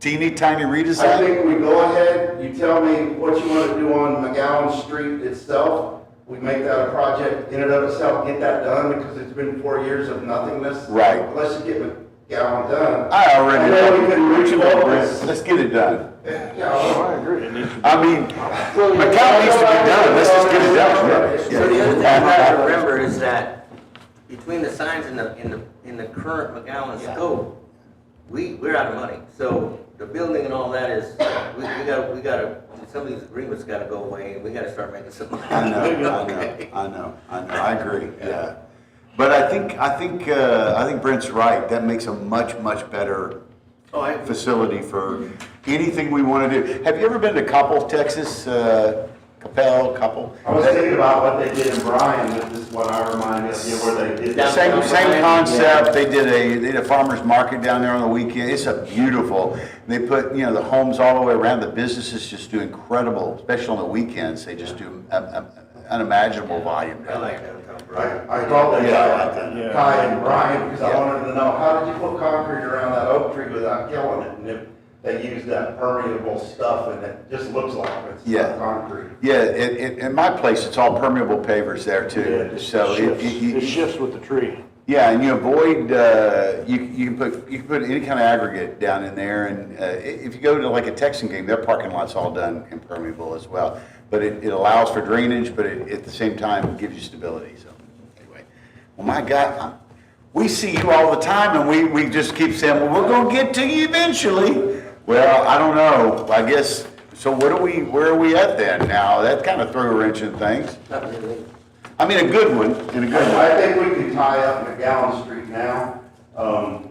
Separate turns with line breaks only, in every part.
teeny tiny
I
redesign?
think we go ahead, you tell me what you want to do on McGowan Street itself. We make that a project in and of itself, get that done, because it's been four years of nothingness.
Right.
Let's get McGowan done.
I already
I know we couldn't
know.
reach
Come on,
all
Brent.
this.
Let's get it done.
You know,
I mean, McCown needs to be done, let's just get it
So the
done.
other thing you gotta remember is that between the signs and the, in the, in the current McGowan scope, we, we're out of money. So the building and all that is, we, we gotta, we gotta, some of these agreements gotta go away and we gotta start making some money.
I know, I know,
Okay.
I know, I know, I agree, yeah. But I think, I think, uh, I think Brent's right, that makes a much, much better
Oh, I,
facility for anything we want to do. Have you ever been to Coppell, Texas? Uh, Capel, Coppell?
I was thinking about what they did in Bryan, which is what I reminded you of where they did.
Yeah,
Same, same
Yeah.
concept, they did a, they did a farmer's market down there on the weekend, it's a beautiful, they put, you know, the homes all the way around, the businesses just do incredible, especially on the weekends, they just do um, um, unimaginable volume
I
down
like
there.
downtown Bryan.
I, I called that
Yeah, I like
guy,
that.
Kai and Brian, because I
Yeah.
wanted to know, how did you put concrete around that oak tree without killing it? And if they used that permeable stuff and it just looks like it's
Yeah.
not concrete.
Yeah, it, it, in my place, it's all permeable pavers there too, so it, it- you-
It shifts with the tree.
yeah, and you avoid, uh, you, you can put, you can put any kind of aggregate down in there, and, uh, i- if you go to like a Texan game, their parking lot's all done impermeable as well. But it, it allows for drainage, but it, at the same time, gives you stability, so, anyway. Well, my God, I'm- we see you all the time, and we, we just keep saying, well, we're gonna get to you eventually. Well, I don't know, I guess, so what are we, where are we at then now? That kind of threw a wrench in things.
Not really.
I mean, a good one, in a good way.
I think we can tie up McGowan Street now. Um,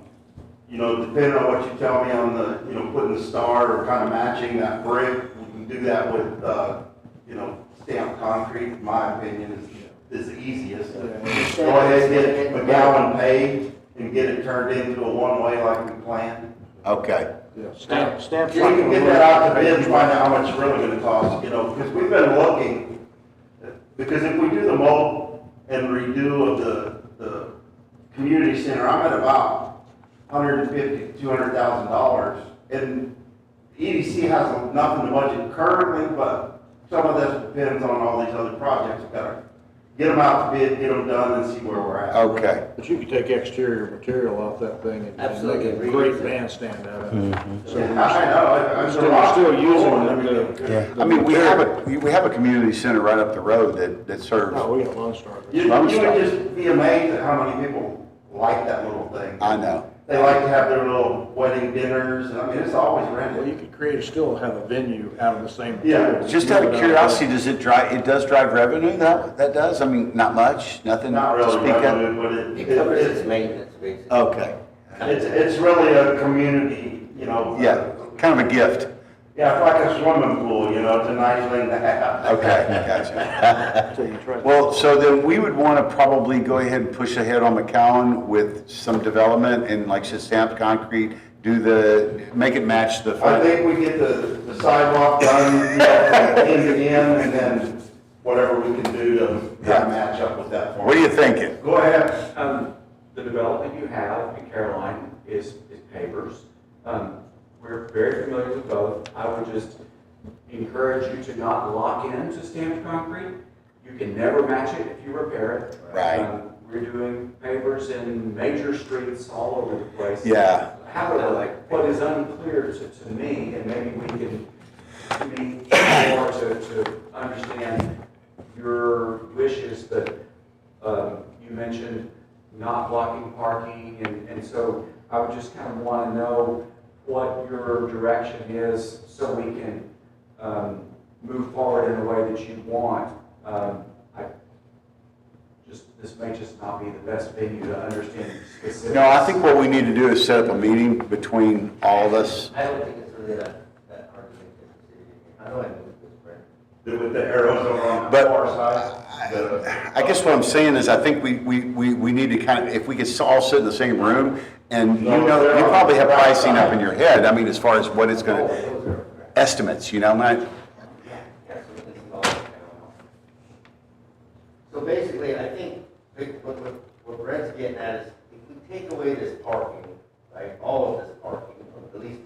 You know, depending on what you tell me on the, you know, putting the star or kind of matching that brick, we can do that with, uh, you know, stamped concrete, in my opinion, is, is the easiest. Go ahead, get McGowan paved and get it turned into a one-way like we planned.
Okay.
Stamp, stamp.
We can get that out to bid, and find out how much it's really gonna cost, you know, because we've been looking, because if we do the mold and redo of the, the community center, I'm at about hundred and fifty, two hundred thousand dollars. And EDC has nothing to budget currently, but some of this depends on all these other projects, we gotta get them out to bid, get them done, and see where we're at.
Okay,
But you could take exterior material off that thing and- and make
Absolutely.
a great bandstand out of it. So
I know,
we're
I- I'm.
still, we're still using the- the.
I mean, we have a, we- we have a community center right up the road that, that
Oh,
No,
serves,
we got Lone Star.
You, you
Lone
would
Star.
just be amazed at how many people like that little thing.
I know.
They like to have their little wedding dinners, and I mean, it's always
Well,
rented.
you could create, still have a venue out of the same.
Yeah.
material.
Just out of curiosity, does it drive, it does drive revenue, that, that does? I mean, not much, nothing
Not
to
really
speak of?
rented, but it,
It
it-
covers its
it's,
maintenance, basically.
Okay,
it's, it's really a community, you know.
yeah, kind of a gift.
Yeah, it's like a swimming pool, you know, it's a nice thing to have.
Okay, gotcha.
So you try.
Well, so then we would want to probably go ahead and push ahead on McCowan with some development and like just stamp concrete, do the, make it match the.
I think we get the the sidewalk done, you know, from end to end, and then whatever we can do to kind
Yeah.
of match up with that. form.
What are you thinking?
Go ahead.
Um, the development you have in Caroline is, is pavers. Um, we're very familiar with both. I would just encourage you to not lock into stamped concrete. You can never match it if you repair it.
Right.
Um, We're doing pavers in major streets all over the place.
Yeah.
However, what is unclear to, to me, and maybe we can meet more to, to understand your wishes, but, um, you mentioned not blocking parking, and, and so I would just kind of want to know what your direction is so we can, um, move forward in the way that you want. Um, I, just, this may just not be the best venue to understand specifics.
No, I think what we need to do is set up a meeting between all of us.
I don't think it's really that, that hard to make this decision. I know I moved this, Brent.
With the arrows over on the
But-
far side. the-
I guess what I'm saying is, I think we, we, we, we need to kind of, if we could all sit in the same room, and you know, you probably have pricing up in your head, I mean, as far as what it's gonna,
Those are, correct.
estimates, you know, my,
Absolutely, it's all down. So basically, I think big- what, what, what Brett's getting at is, if we take away this parking, right, all of this parking, at least